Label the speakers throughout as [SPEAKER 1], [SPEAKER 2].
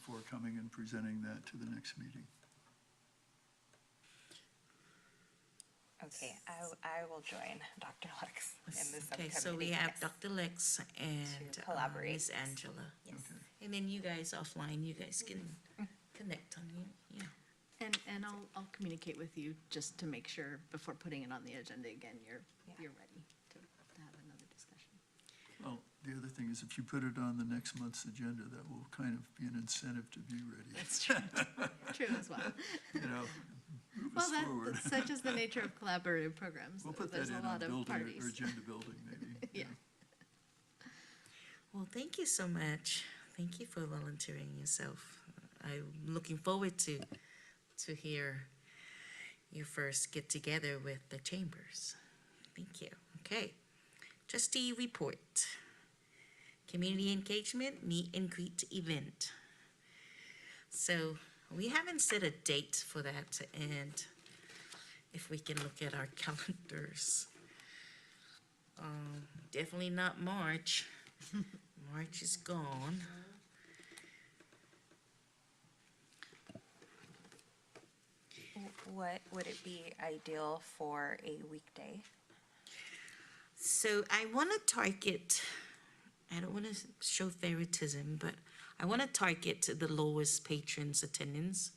[SPEAKER 1] for coming and presenting that to the next meeting.
[SPEAKER 2] Okay, I, w- I will join Dr. Lux in this
[SPEAKER 3] Okay,
[SPEAKER 2] upcoming
[SPEAKER 3] so we
[SPEAKER 2] meeting,
[SPEAKER 3] have
[SPEAKER 2] yes.
[SPEAKER 3] Dr. Lex and uh,
[SPEAKER 2] collaborate.
[SPEAKER 3] Miss Angela.
[SPEAKER 1] Okay.
[SPEAKER 3] And then you guys offline, you guys can
[SPEAKER 2] Mm-hmm.
[SPEAKER 3] connect on you, yeah.
[SPEAKER 4] And, and I'll, I'll communicate with you just to make sure before putting it on the agenda again, you're,
[SPEAKER 2] Yeah.
[SPEAKER 4] you're ready to to have another discussion.
[SPEAKER 1] Well, the other thing is if you put it on the next month's agenda, that will kind of be an incentive to be ready,
[SPEAKER 4] That's true. True as well.
[SPEAKER 1] you know? Move
[SPEAKER 4] Well,
[SPEAKER 1] us
[SPEAKER 4] that,
[SPEAKER 1] forward.
[SPEAKER 4] that's such is the nature of collaborative programs.
[SPEAKER 1] We'll put that
[SPEAKER 4] There's
[SPEAKER 1] in
[SPEAKER 4] a
[SPEAKER 1] on
[SPEAKER 4] lot of
[SPEAKER 1] building or
[SPEAKER 4] parties.
[SPEAKER 1] agenda building, maybe.
[SPEAKER 4] Yeah.
[SPEAKER 3] Well, thank you so much. Thank you for volunteering yourself. I'm looking forward to, to hear your first get together with the chambers. Thank you. Okay. Trustee report. Community engagement, meet and greet event. So we haven't set a date for that and if we can look at our calendars. Um, definitely not March. March is gone.
[SPEAKER 2] W- What, would it be ideal for a weekday?
[SPEAKER 3] So I want to target, I don't want to show favoritism, but I want to target the lowest patrons attendance,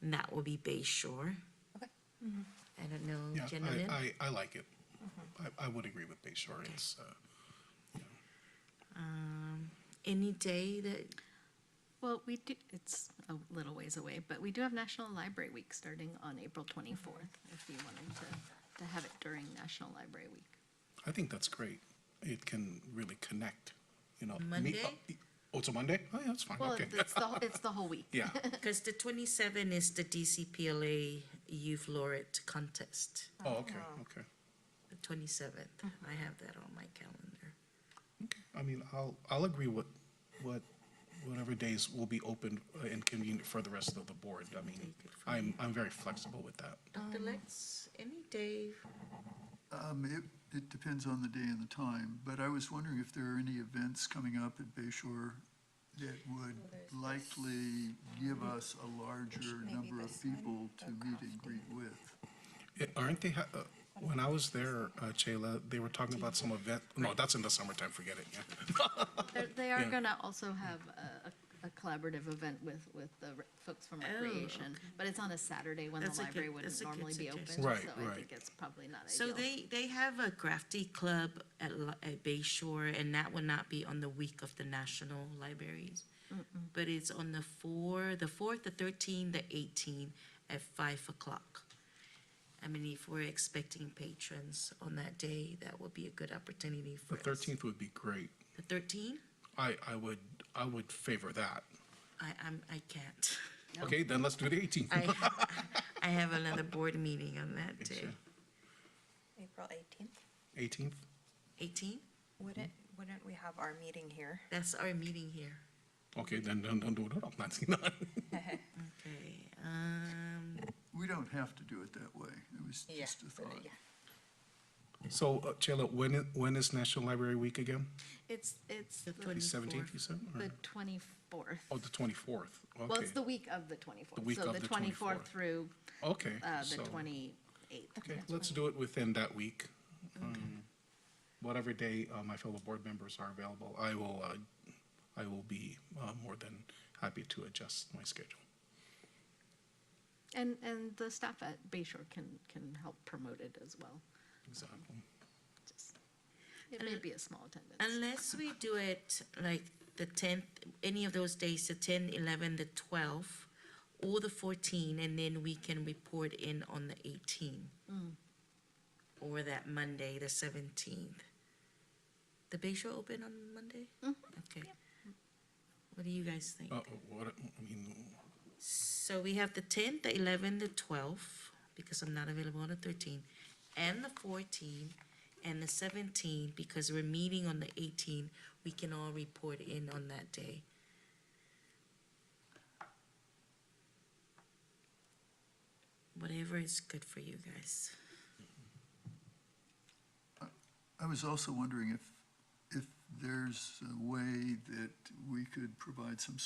[SPEAKER 3] and that will be Bay Shore.
[SPEAKER 2] Okay.
[SPEAKER 3] I don't know,
[SPEAKER 5] Yeah,
[SPEAKER 3] gentlemen.
[SPEAKER 5] I, I, I like it.
[SPEAKER 4] Mm-hmm.
[SPEAKER 5] I, I would agree with Bay Shore. It's, uh,
[SPEAKER 3] Any day that,
[SPEAKER 4] Well, we do, it's a little ways away, but we do have National Library Week starting on April twenty-fourth, if you wanted to, to have it during National Library Week.
[SPEAKER 5] I think that's great. It can really connect, you know. me-
[SPEAKER 3] Monday?
[SPEAKER 5] uh, Oh, it's a Monday? Oh, yeah, that's fine,
[SPEAKER 4] Well,
[SPEAKER 5] okay.
[SPEAKER 4] it's the, whole- it's the whole week.
[SPEAKER 5] Yeah,
[SPEAKER 3] because the 27 is the DCPLA Youth Laureate Contest,
[SPEAKER 5] oh, okay, okay.
[SPEAKER 3] the 27th. I have that on my calendar.
[SPEAKER 5] Okay. I mean, I'll, I'll agree with, what, whatever days will be open uh, and convenient for the rest of the board. I mean, I'm, I'm very flexible with that.
[SPEAKER 3] Dr. Lex, any day,
[SPEAKER 1] Um, it, it depends on the day and the time, but I was wondering if there are any events coming up at Bay Shore that would likely give us a larger
[SPEAKER 2] Maybe
[SPEAKER 1] number of
[SPEAKER 2] this one,
[SPEAKER 1] people to
[SPEAKER 2] the
[SPEAKER 1] meet and
[SPEAKER 2] crafting.
[SPEAKER 1] greet with.
[SPEAKER 5] Yeah, Aren't they, ha- uh, when I was there, uh, Chayla, they were talking about some event, no, that's in the summertime, forget it, yeah.
[SPEAKER 4] They're- They are
[SPEAKER 5] Yeah.
[SPEAKER 4] gonna also have a, a- a collaborative event with, with the re- folks from recreation, but it's on a Saturday when
[SPEAKER 3] Oh,
[SPEAKER 4] the
[SPEAKER 3] That's a good-
[SPEAKER 4] library wouldn't
[SPEAKER 3] that's a good
[SPEAKER 4] normally be open.
[SPEAKER 3] suggestion.
[SPEAKER 5] Right,
[SPEAKER 4] So I
[SPEAKER 5] right.
[SPEAKER 4] think it's probably not
[SPEAKER 3] So
[SPEAKER 4] ideal.
[SPEAKER 3] they, they have a crafty club at, Li- at Bay Shore, and that will not be on the week of the national libraries. But it's on the four, the fourth, the thirteenth, the eighteenth at five o'clock. I mean, if we're expecting patrons on that day, that would be a good opportunity for
[SPEAKER 5] The
[SPEAKER 3] us.
[SPEAKER 5] thirteenth would be great.
[SPEAKER 3] The thirteenth?
[SPEAKER 5] I, I would, I would favor that.
[SPEAKER 3] I, I'm, I can't.
[SPEAKER 5] Okay, then let's do the eighteenth.
[SPEAKER 3] I, I have another board meeting on that day.
[SPEAKER 5] sure.
[SPEAKER 2] April eighteenth?
[SPEAKER 5] Eighteenth?
[SPEAKER 3] Eighteen?
[SPEAKER 2] Wouldn't, wouldn't we have our meeting here?
[SPEAKER 3] That's our meeting here.
[SPEAKER 5] Okay, then, then, then do it on nineteenth.
[SPEAKER 3] Okay, um,
[SPEAKER 1] We don't have to do it that way. It was
[SPEAKER 2] Yeah,
[SPEAKER 1] just a
[SPEAKER 2] but, uh,
[SPEAKER 1] thought.
[SPEAKER 2] yeah.
[SPEAKER 5] So, uh, Chayla, when, i- when is National Library Week again?
[SPEAKER 4] It's, it's
[SPEAKER 3] the
[SPEAKER 4] the-
[SPEAKER 5] The seventeenth, you
[SPEAKER 3] twenty-fourth.
[SPEAKER 5] said?
[SPEAKER 4] the twenty-fourth.
[SPEAKER 5] or- Oh, the twenty-fourth,
[SPEAKER 4] Well, it's the
[SPEAKER 5] okay.
[SPEAKER 4] week of the
[SPEAKER 5] The
[SPEAKER 4] twenty-fourth,
[SPEAKER 5] week
[SPEAKER 4] so
[SPEAKER 5] of
[SPEAKER 4] the
[SPEAKER 5] the
[SPEAKER 4] twenty-fourth
[SPEAKER 5] 24th.
[SPEAKER 4] through,
[SPEAKER 5] Okay.
[SPEAKER 4] uh, the
[SPEAKER 5] so-
[SPEAKER 4] twenty-eighth.
[SPEAKER 5] Okay, let's do it within that week. Um, Whatever day, uh, my fellow board members are available, I will, uh, I will be, uh, more than happy to adjust my schedule.
[SPEAKER 4] And, and the staff at Bay Shore can, can help promote it as well.
[SPEAKER 5] Exactly.
[SPEAKER 4] Just It may be a small attendance.
[SPEAKER 3] Unless we do it like the tenth, any of those days, the 10, 11, the twelfth, or the fourteen, and then we can report in on the eighteen. Or that Monday, the seventeenth. The Bay Shore open on Monday? Okay. What do you guys think?
[SPEAKER 5] Uh, what, I mean,
[SPEAKER 3] So we have the tenth, the eleventh, the twelfth, because I'm not available on the thirteenth, and the fourteenth, and the seventeenth, because we're meeting on the eighteenth, we can all report in on that day. Whatever is good for you guys.
[SPEAKER 1] I was also wondering if, if there's a way that we could provide some